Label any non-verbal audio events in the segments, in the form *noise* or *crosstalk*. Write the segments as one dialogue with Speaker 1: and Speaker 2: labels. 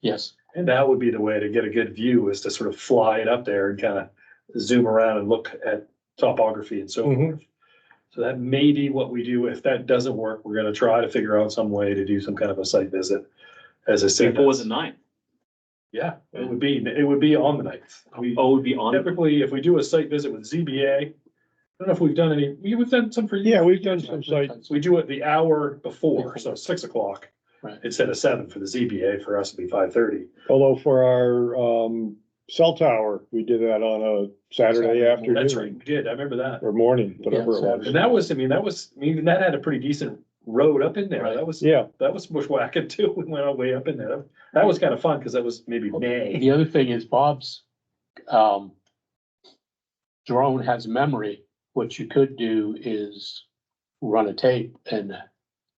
Speaker 1: Yes.
Speaker 2: And that would be the way to get a good view is to sort of fly it up there and kind of zoom around and look at topography and so
Speaker 3: Mhm.
Speaker 2: forth. So that may be what we do. If that doesn't work, we're gonna try to figure out some way to do some kind of a site visit. As I said,
Speaker 1: April was the ninth.
Speaker 2: yeah, it would be, it would be on the ninth. We
Speaker 1: Oh, it would be on.
Speaker 2: typically, if we do a site visit with ZBA, I don't know if we've done any, we- we've done some for.
Speaker 3: Yeah, we've done some site,
Speaker 2: We do it the hour before, so six o'clock.
Speaker 1: Right.
Speaker 2: Instead of seven for the ZBA, for us it'd be five thirty.
Speaker 3: although for our, um, cell tower, we did that on a Saturday
Speaker 1: Saturday,
Speaker 3: afternoon.
Speaker 2: That's right, we did, I remember that.
Speaker 3: Or morning, whatever it
Speaker 2: And
Speaker 3: was.
Speaker 2: that was, I mean, that was, I mean, that had a pretty decent road up in there.
Speaker 1: Right.
Speaker 2: That was,
Speaker 3: Yeah,
Speaker 2: that was bushwhacking *laughs* too. We went all the way up in there. That was kind of fun because that was maybe May.
Speaker 4: The other thing is Bob's, um, drone has memory. What you could do is run a tape and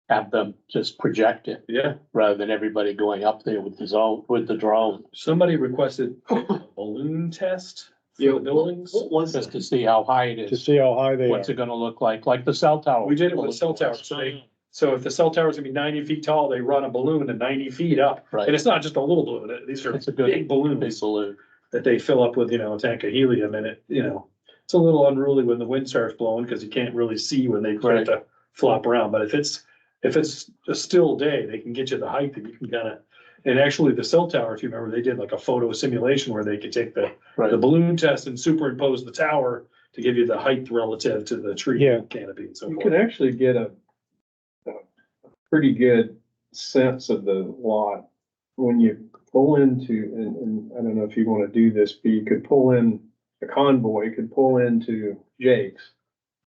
Speaker 4: have them just project it
Speaker 2: Yeah,
Speaker 4: rather than everybody going up there with the zone, with the drone.
Speaker 2: somebody requested
Speaker 1: *laughs*
Speaker 2: a balloon test for
Speaker 1: Yeah.
Speaker 2: the buildings.
Speaker 1: What was
Speaker 4: Just
Speaker 1: it?
Speaker 4: to see how high it
Speaker 3: to
Speaker 4: is.
Speaker 3: see how high they are.
Speaker 4: What's it gonna look like, like the cell
Speaker 1: Oh,
Speaker 4: tower?
Speaker 2: We did it with cell towers, so they- So if the cell tower's gonna be ninety feet tall, they run a balloon to ninety feet up. And
Speaker 4: Right.
Speaker 2: it's not just a little balloon. These are
Speaker 4: It's a good-
Speaker 2: big
Speaker 4: Big
Speaker 2: balloons
Speaker 4: balloon.
Speaker 2: that they fill up with, you know, a tank of helium and it, you know. It's a little unruly when the wind starts blowing because you can't really see when they start
Speaker 4: Right.
Speaker 2: to flop around. But if it's, if it's a still day, they can get you the height that you can kind of. And actually, the cell tower, if you remember, they did like a photo simulation where they could take the,
Speaker 4: Right.
Speaker 2: the balloon test and superimpose the tower to give you the height relative to the tree
Speaker 3: Yeah.
Speaker 2: canopy and so
Speaker 5: You
Speaker 2: forth.
Speaker 5: can actually get a, a pretty good sense of the lot when you pull into, and, and I don't know if you wanna do this, but you could pull in, a convoy could pull into Jake's.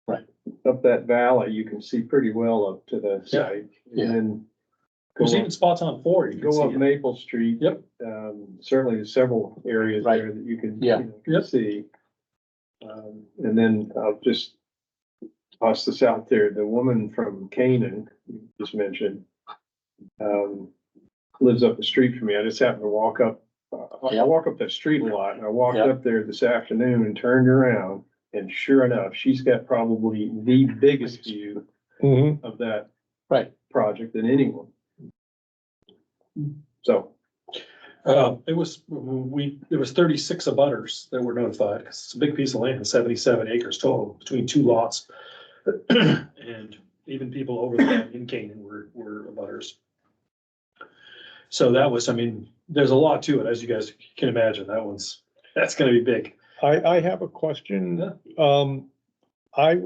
Speaker 4: Right.
Speaker 5: Up that valley, you can see pretty well up to the
Speaker 2: Yeah.
Speaker 5: site.
Speaker 4: Yeah.
Speaker 5: And then go
Speaker 2: There's
Speaker 5: up,
Speaker 2: even spots on four. You can
Speaker 5: go up
Speaker 2: see it.
Speaker 5: Maple Street.
Speaker 2: Yep.
Speaker 5: Um, certainly there's several areas
Speaker 4: Right.
Speaker 5: there that you can.
Speaker 4: Yeah.
Speaker 5: you know, can
Speaker 2: Yep.
Speaker 5: See. Um, and then I'll just toss this out there, the woman from Canaan, you just mentioned, um, lives up the street from me. I just happened to walk up, uh, I- I
Speaker 4: Yeah.
Speaker 5: walk up that street a lot, and I walked
Speaker 4: Yeah.
Speaker 5: up there this afternoon and turned around, and sure enough, she's got probably the biggest view
Speaker 3: Mhm.
Speaker 5: of that
Speaker 4: Right.
Speaker 5: project than anyone. So,
Speaker 2: Uh, it was, we, it was thirty-six abutters that were notified, 'cause it's a big piece of land, seventy-seven acres total, between two lots. *clears throat* And even people over there in Canaan were, were abutters. So that was, I mean, there's a lot to it, as you guys can imagine, that one's, that's gonna be big.
Speaker 3: I, I have a question. Um, I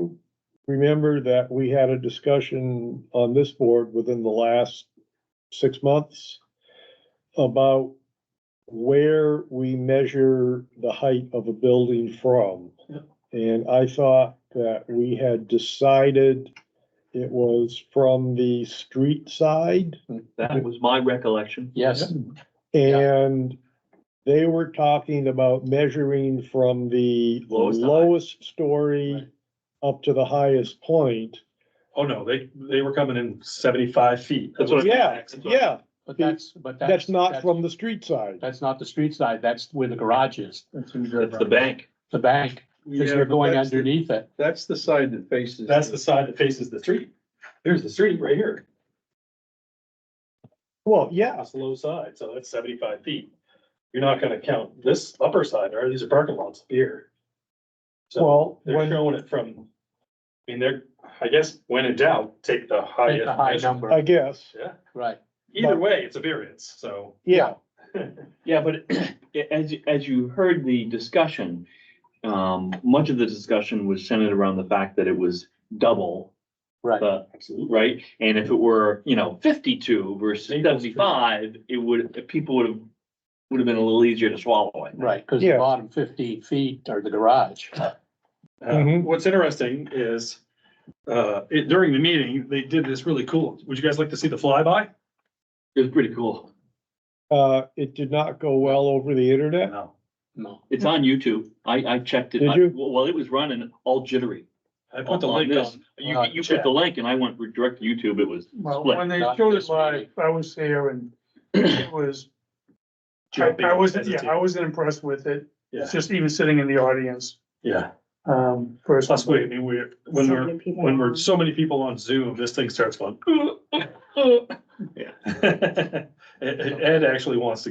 Speaker 3: remember that we had a discussion on this board within the last six months about where we measure the height of a building from.
Speaker 2: Yeah.
Speaker 3: And I thought that we had decided it was from the street side.
Speaker 1: That was my recollection.
Speaker 4: Yes, Yeah.
Speaker 3: And they were talking about measuring from the
Speaker 1: Lowest to high.
Speaker 3: lowest story up to the highest point.
Speaker 2: Oh, no, they, they were coming in seventy-five feet.
Speaker 1: That's what I-
Speaker 3: Yeah,
Speaker 1: That's what I-
Speaker 3: yeah,
Speaker 4: but that's, but that's.
Speaker 3: that's not from the street side.
Speaker 4: That's not the street side. That's where the garage is,
Speaker 1: That's the bank.
Speaker 4: the bank, because
Speaker 5: Yeah,
Speaker 4: you're
Speaker 5: but
Speaker 4: going
Speaker 5: that's the-
Speaker 4: underneath it.
Speaker 5: that's the side that faces.
Speaker 2: That's the side that faces the street. Here's the street right here.
Speaker 3: Well, yeah,
Speaker 2: That's the low side, so that's seventy-five feet. You're not gonna count this upper side, or these are parking lots here. So
Speaker 3: well,
Speaker 2: they're
Speaker 3: when,
Speaker 2: showing it from, I mean, they're, I guess, when in doubt, take the
Speaker 4: Take the high
Speaker 2: highest. measure.
Speaker 4: number,
Speaker 3: I guess,
Speaker 2: Yeah,
Speaker 4: right.
Speaker 2: either way, it's a variance, so.
Speaker 3: yeah,
Speaker 1: Yeah, but *clears throat* as, as you heard the discussion, um, much of the discussion was centered around the fact that it was double
Speaker 4: Right.
Speaker 1: the, right? And if it were, you know, fifty-two versus
Speaker 2: Maple Street.
Speaker 1: seventy-five, it would, people would have, would have been a little easier to swallow. I think.
Speaker 4: Right, because the
Speaker 3: Yeah.
Speaker 4: bottom fifteen feet are the garage.
Speaker 2: Uh,
Speaker 3: Mhm.
Speaker 2: what's interesting is, uh, it, during the meeting, they did this really cool. Would you guys like to see the flyby?
Speaker 1: It was pretty cool.
Speaker 3: uh, it did not go well over the internet.
Speaker 2: No.
Speaker 4: No,
Speaker 1: It's on YouTube. I, I checked it.
Speaker 3: Did
Speaker 1: I-
Speaker 3: you?
Speaker 1: Well, it was running all jittery.
Speaker 2: I put the
Speaker 1: on
Speaker 2: link
Speaker 1: this.
Speaker 2: on.
Speaker 1: You,
Speaker 4: uh,
Speaker 1: you put
Speaker 2: chat.
Speaker 1: the link and I went direct to YouTube. It was
Speaker 6: Well,
Speaker 1: split.
Speaker 6: when they
Speaker 4: not
Speaker 6: showed
Speaker 4: this
Speaker 6: it live,
Speaker 4: meeting.
Speaker 6: I was there and it was, I,
Speaker 2: Jumping
Speaker 6: I wasn't, yeah,
Speaker 2: hesitant.
Speaker 6: I wasn't impressed with it.
Speaker 2: Yeah.
Speaker 6: Just even sitting in the audience,
Speaker 2: Yeah.
Speaker 6: um, first.
Speaker 2: Plus, we, I mean, we're, when
Speaker 7: So
Speaker 2: we're,
Speaker 7: many people
Speaker 2: when we're
Speaker 7: on.
Speaker 2: so many people on Zoom, this *laughs* *clears throat*
Speaker 1: *clears throat*
Speaker 2: thing starts going. Ed, Ed actually wants to